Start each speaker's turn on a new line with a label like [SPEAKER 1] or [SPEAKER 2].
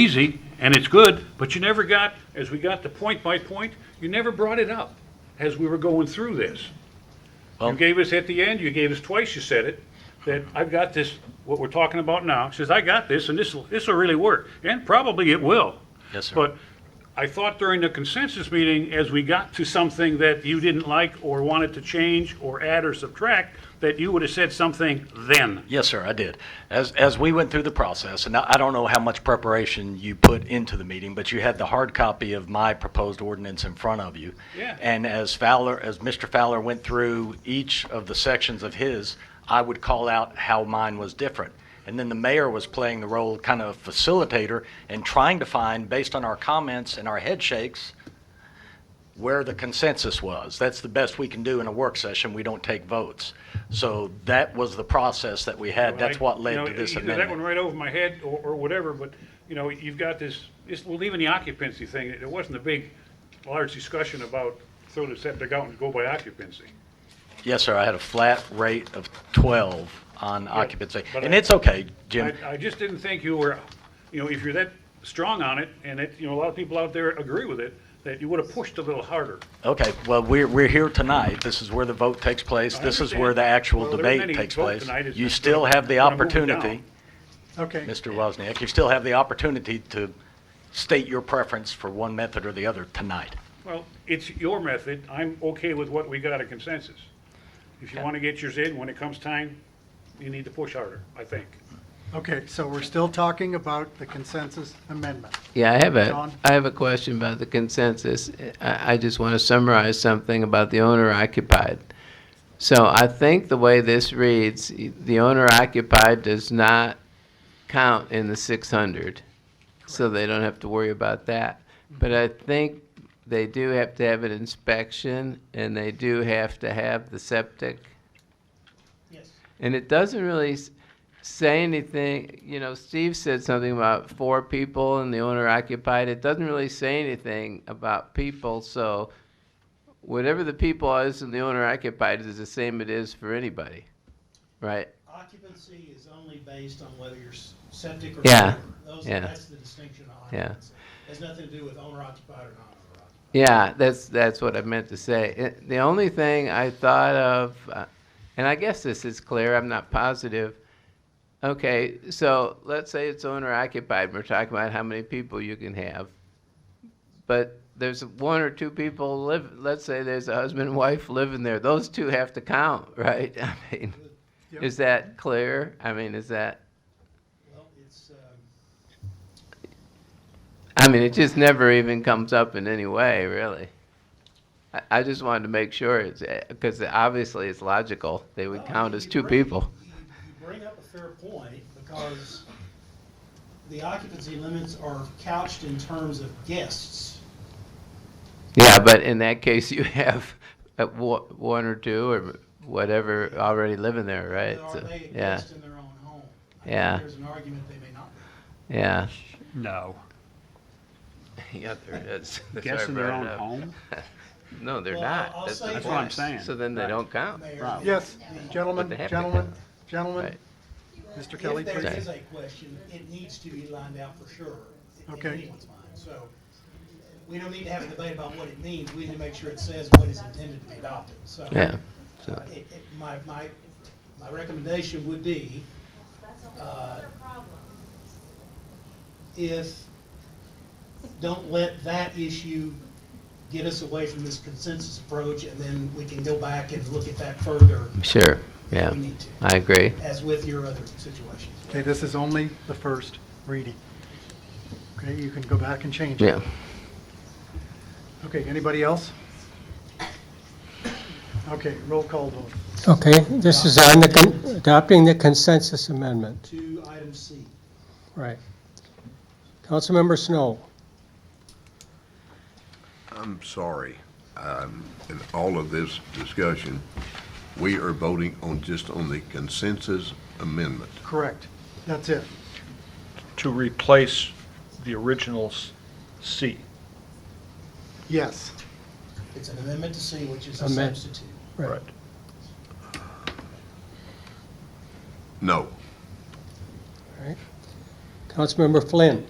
[SPEAKER 1] easy and it's good, but you never got, as we got to point by point, you never brought it up as we were going through this. You
[SPEAKER 2] Well-
[SPEAKER 1] gave us at the end, you gave us twice, you said it, that I've got this, what we're talking about now, says, I got this and this, this will really work. And probably it will.
[SPEAKER 2] Yes, sir.
[SPEAKER 1] But I thought during the consensus meeting, as we got to something that you didn't like or wanted to change or add or subtract, that you would have said something then.
[SPEAKER 2] Yes, sir, I did. As, as we went through the process, and I I don't know how much preparation you put into the meeting, but you had the hard copy of my proposed ordinance in front of you.
[SPEAKER 1] Yeah.
[SPEAKER 2] And as Fowler, as Mr. Fowler went through each of the sections of his, I would call out how mine was different. And then the mayor was playing the role of kind of facilitator and trying to find, based on our comments and our head shakes, where the consensus was. That's the best we can do in a work session. We don't take votes. So that was the process that we had. That's what
[SPEAKER 1] You
[SPEAKER 2] led
[SPEAKER 1] know,
[SPEAKER 2] to this
[SPEAKER 1] either That went
[SPEAKER 2] amendment.
[SPEAKER 1] right over my head or, or whatever, but, you know, you've got this, this, well, even the occupancy thing, it wasn't a big, large discussion about throw the septic out and go by occupancy.
[SPEAKER 2] Yes, sir, I had a flat rate of 12 on occupancy.
[SPEAKER 1] but
[SPEAKER 2] And
[SPEAKER 1] I-
[SPEAKER 2] it's okay, Jim.
[SPEAKER 1] I, I just didn't think you were, you know, if you're that strong on it, and it, you know, a lot of people out there agree with it, that you would have pushed a little harder.
[SPEAKER 2] Okay, well, we're, we're here tonight. This is where the vote takes place.
[SPEAKER 1] I
[SPEAKER 2] This is
[SPEAKER 1] understand.
[SPEAKER 2] where the actual
[SPEAKER 1] Well, there isn't
[SPEAKER 2] debate
[SPEAKER 1] any
[SPEAKER 2] takes
[SPEAKER 1] vote
[SPEAKER 2] place.
[SPEAKER 1] tonight. It's
[SPEAKER 2] You
[SPEAKER 1] just
[SPEAKER 2] still
[SPEAKER 1] gonna-
[SPEAKER 2] have the
[SPEAKER 1] we're gonna move it
[SPEAKER 2] opportunity,
[SPEAKER 3] Okay,
[SPEAKER 2] Mr. Wozniak, you still have the opportunity to state your preference for one method or the other tonight.
[SPEAKER 1] Well, it's your method, I'm okay with what we got a consensus. If you want to get yours in, when it comes time, you need to push harder, I think.
[SPEAKER 3] okay, so we're still talking about the consensus amendment.
[SPEAKER 4] Yeah, I have a,
[SPEAKER 3] John?
[SPEAKER 4] I have a question about the consensus. I, I just want to summarize something about the owner occupied. So I think the way this reads, the owner occupied does not count in the six hundred. So they don't have to worry about that. But I think they do have to have an inspection and they do have to have the septic. And it doesn't really s- say anything, you know, Steve said something about four people and the owner occupied. It doesn't really say anything about people, so whatever the people is and the owner occupied is the same it is for anybody, right?
[SPEAKER 5] Occupancy is only based on whether you're s- septic or
[SPEAKER 4] Yeah,
[SPEAKER 5] sewer. Those,
[SPEAKER 4] yeah.
[SPEAKER 5] that's the distinction of
[SPEAKER 4] Yeah.
[SPEAKER 5] occupancy. Has nothing to do with owner occupied or non-owner occupied.
[SPEAKER 4] Yeah, that's that's what I meant to say. It, the only thing I thought of, uh, and I guess this is clear. I'm not positive. Okay, so let's say it's owner occupied. We're talking about how many people you can have, but there's one or two people live. Let's say there's a husband and wife living there. Those two have to count, right? I mean,
[SPEAKER 3] Yep.
[SPEAKER 4] is that clear? I mean, is that?
[SPEAKER 5] Well, it's, um,
[SPEAKER 4] I mean, it just never even comes up in any way, really. I, I just wanted to make sure it's because obviously it's logical. They would
[SPEAKER 5] well,
[SPEAKER 4] count
[SPEAKER 5] you-
[SPEAKER 4] as
[SPEAKER 5] you
[SPEAKER 4] two
[SPEAKER 5] bring-
[SPEAKER 4] people.
[SPEAKER 5] You you bring up a fair point because the occupancy limits are couched in terms of guests.
[SPEAKER 4] Yeah, but in that case, you have uh, wo- one or two or whatever already living there, right?
[SPEAKER 5] Are
[SPEAKER 4] So,
[SPEAKER 5] they a
[SPEAKER 4] yeah,
[SPEAKER 5] guest in their own home? I think
[SPEAKER 4] Yeah.
[SPEAKER 5] There's an argument they may not be.
[SPEAKER 4] yeah,
[SPEAKER 1] No.
[SPEAKER 4] yeah. There it is.
[SPEAKER 1] Guess in their own home?
[SPEAKER 4] No, they're
[SPEAKER 5] Well,
[SPEAKER 4] not.
[SPEAKER 5] I'll
[SPEAKER 4] That's,
[SPEAKER 5] say
[SPEAKER 4] the
[SPEAKER 1] That's what I'm
[SPEAKER 4] point.
[SPEAKER 1] saying.
[SPEAKER 4] So then they
[SPEAKER 1] Right.
[SPEAKER 4] don't count.
[SPEAKER 5] Mayor,
[SPEAKER 1] Right.
[SPEAKER 3] Yes,
[SPEAKER 4] But they
[SPEAKER 3] gentlemen,
[SPEAKER 4] have to
[SPEAKER 3] gentlemen,
[SPEAKER 4] count.
[SPEAKER 3] gentlemen,
[SPEAKER 4] Right.
[SPEAKER 3] Mr. Kelly,
[SPEAKER 5] If there
[SPEAKER 3] please.
[SPEAKER 5] is a question, it needs to be lined out for sure. in
[SPEAKER 3] Okay.
[SPEAKER 5] anyone's mind. So we don't need to have a debate about what it means. We need to make sure it says what is intended to be adopted. So
[SPEAKER 4] Yeah.
[SPEAKER 5] uh, it- it- My, my, my recommendation would be, uh, if, don't let that issue get us away from this consensus approach, and then we can go back and look at that further
[SPEAKER 4] Sure. Yeah.
[SPEAKER 5] if we need to,
[SPEAKER 4] I agree.
[SPEAKER 5] as with your other situations.
[SPEAKER 3] Okay, this is only the first reading. Okay, you can go back and change it.
[SPEAKER 4] Yeah.
[SPEAKER 3] Okay, anybody else? Okay, roll call vote.
[SPEAKER 6] Okay, this is on the, con- adopting the consensus amendment,
[SPEAKER 5] To item C.
[SPEAKER 6] right. Councilmember Snow,
[SPEAKER 7] I'm sorry, um, in all of this discussion, we are voting on, just on the consensus amendment.
[SPEAKER 3] Correct, that's it.
[SPEAKER 8] to replace the original s- C.
[SPEAKER 3] Yes,
[SPEAKER 5] It's an amendment to C, which is a
[SPEAKER 6] Amend-
[SPEAKER 5] substitute.
[SPEAKER 6] right.
[SPEAKER 7] No,
[SPEAKER 6] Councilmember Flynn,